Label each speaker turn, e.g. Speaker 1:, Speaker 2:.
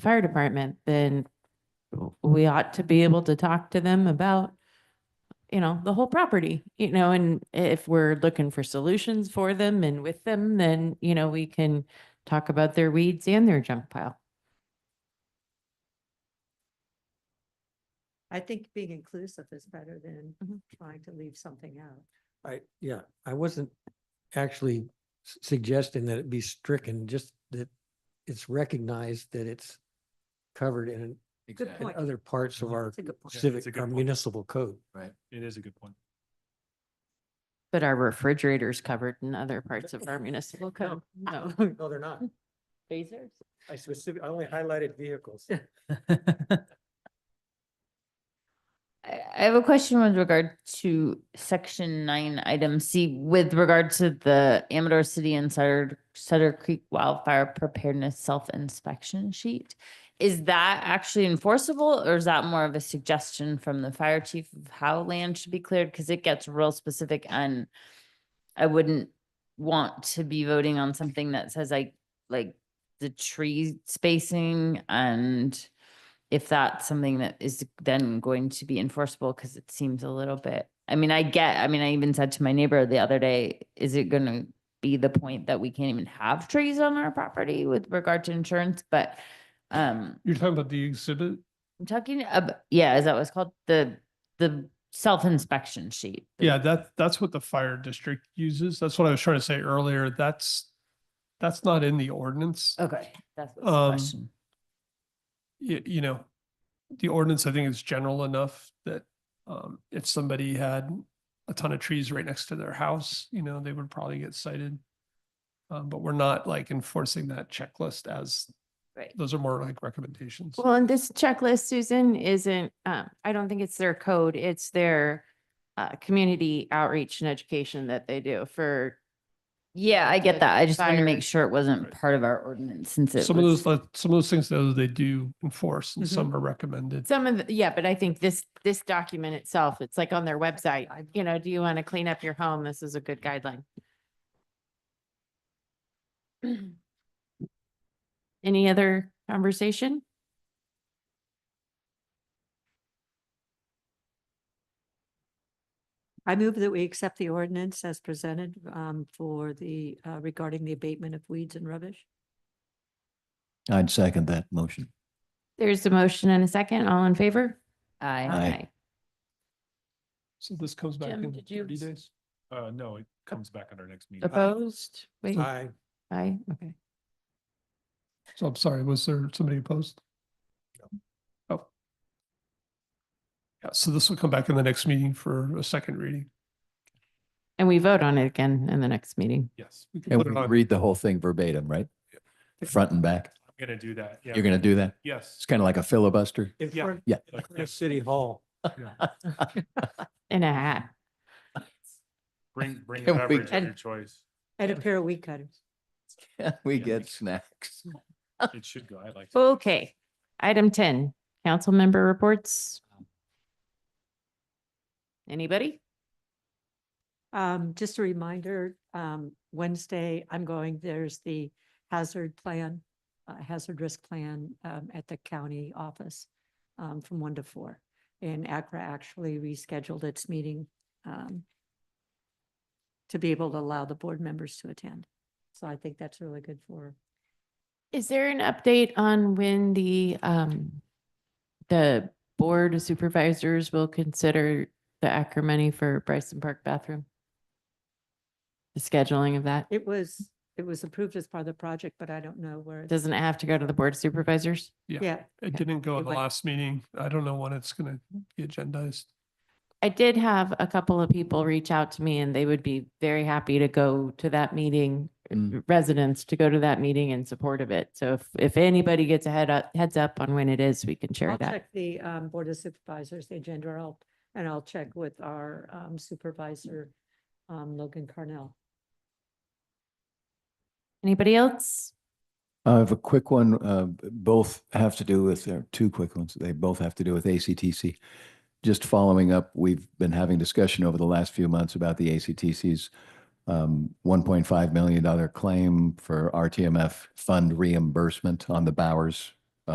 Speaker 1: fire department, then we ought to be able to talk to them about, you know, the whole property, you know, and if we're looking for solutions for them and with them, then, you know, we can talk about their weeds and their junk pile.
Speaker 2: I think being inclusive is better than
Speaker 1: Mhm.
Speaker 2: trying to leave something out.
Speaker 3: I, yeah, I wasn't actually s- suggesting that it be stricken, just that it's recognized that it's covered in,
Speaker 2: Good
Speaker 3: in
Speaker 2: point.
Speaker 3: other parts of our
Speaker 2: That's a good point.
Speaker 4: it's a
Speaker 3: civic,
Speaker 4: good
Speaker 3: our
Speaker 4: point.
Speaker 3: municipal code.
Speaker 4: Right. It is a good point.
Speaker 1: But our refrigerator's covered in other parts of our municipal code. No.
Speaker 3: No, they're not.
Speaker 1: Phasers?
Speaker 3: I specifically, I only highlighted vehicles.
Speaker 5: I, I have a question with regard to section nine, item C, with regard to the Amador City and Sutter, Sutter Creek wildfire preparedness self-inspection sheet. Is that actually enforceable or is that more of a suggestion from the fire chief of how land should be cleared? Cause it gets real specific and I wouldn't want to be voting on something that says like, like the tree spacing and if that's something that is then going to be enforceable, because it seems a little bit, I mean, I get, I mean, I even said to my neighbor the other day, is it gonna be the point that we can't even have trees on our property with regard to insurance, but um,
Speaker 6: You're talking about the exhibit?
Speaker 5: I'm talking about, yeah, is that what's called the, the self-inspection sheet? the-
Speaker 6: Yeah, that, that's what the fire district uses. That's what I was trying to say earlier. That's, that's not in the ordinance.
Speaker 1: Oh.
Speaker 5: Okay, that's what's the
Speaker 6: Um,
Speaker 5: question.
Speaker 6: You, you know, the ordinance, I think is general enough that um, if somebody had a ton of trees right next to their house, you know, they would probably get cited. Um, but we're not like enforcing that checklist as,
Speaker 5: Right.
Speaker 6: those are more like recommendations.
Speaker 1: Well, and this checklist, Susan, isn't, uh, I don't think it's their code, it's their, uh, community outreach and education that they do for
Speaker 5: Yeah, I
Speaker 1: the
Speaker 5: get that. I just wanted to
Speaker 1: fire-
Speaker 5: make sure it wasn't
Speaker 6: Right.
Speaker 5: part of our ordinance since it
Speaker 6: Some of
Speaker 5: was.
Speaker 6: those, like, some of those things though, they do enforce
Speaker 1: Mm-hmm.
Speaker 6: and some are recommended.
Speaker 1: Some of, the yeah, but I think this, this document itself, it's like on their website,
Speaker 2: I-
Speaker 1: you know, do you want to clean up your home? This is a good guideline. Any other conversation?
Speaker 2: I move that we accept the ordinance as presented um, for the, uh, regarding the abatement of weeds and rubbish.
Speaker 4: I'd second that motion.
Speaker 1: There's a motion and a second, all in favor?
Speaker 5: I,
Speaker 4: Aye.
Speaker 6: So this comes back
Speaker 1: Jim,
Speaker 6: in
Speaker 1: did you-
Speaker 6: thirty days.
Speaker 4: Uh, no, it comes back at our next meeting.
Speaker 1: Opposed? Wait,
Speaker 3: I,
Speaker 1: aye, okay.
Speaker 6: So I'm sorry, was there somebody opposed? Oh. Yeah, so this will come back in the next meeting for a second reading.
Speaker 1: And we vote on it again in the next meeting.
Speaker 4: Yes.
Speaker 6: We can
Speaker 7: And
Speaker 6: put
Speaker 7: we
Speaker 6: it on-
Speaker 7: read the whole thing verbatim, right? Front and back.
Speaker 4: I'm gonna do that. Yeah.
Speaker 7: You're going to do that?
Speaker 4: Yes.
Speaker 7: It's kind of like a filibuster.
Speaker 3: in
Speaker 4: Yeah.
Speaker 3: front
Speaker 7: Yeah.
Speaker 3: in front of City Hall.
Speaker 1: In a hat.
Speaker 4: Bring, bring
Speaker 7: Can we
Speaker 4: beverage of
Speaker 7: get-
Speaker 4: your choice.
Speaker 2: And a pair of weed cutters.
Speaker 7: We
Speaker 4: Yeah.
Speaker 7: get snacks.
Speaker 4: It should go. I like. it.
Speaker 1: Okay, item ten, council member reports. Anybody?
Speaker 2: Um, just a reminder, um, Wednesday, I'm going, there's the hazard plan, uh, hazard risk plan, um, at the county office, um, from one to four. And Accra actually rescheduled its meeting, um, to be able to allow the board members to attend. So I think that's really good for,
Speaker 1: Is there an update on when the, um, the board of supervisors will consider the Acker money for Bryson Park bathroom? The scheduling of that?
Speaker 2: it was, it was approved as part of the project, but I don't know where. it's-
Speaker 1: Doesn't it have to go to the board of supervisors?
Speaker 2: Yeah,
Speaker 6: It didn't go
Speaker 2: It
Speaker 6: in the
Speaker 2: went-
Speaker 6: last meeting. I don't know when it's gonna be agendized.
Speaker 1: I did have a couple of people reach out to me and they would be very happy to go to that meeting,
Speaker 7: Mm.
Speaker 1: residents to go to that meeting in support of it. So if, if anybody gets a head up, heads up on when it is, we can share
Speaker 2: I'll
Speaker 1: that.
Speaker 2: check the, um, board of supervisors, the agenda, and I'll, and I'll check with our, um, supervisor, um, Logan Carnell.
Speaker 1: Anybody else?
Speaker 7: I have a quick one. Uh, b- both have to do with, uh, two quick ones. They both have to do with ACTC. Just following up, we've been having discussion over the last few months about the ACTC's um, $1.5 million claim for RTMF fund reimbursement on the Bowers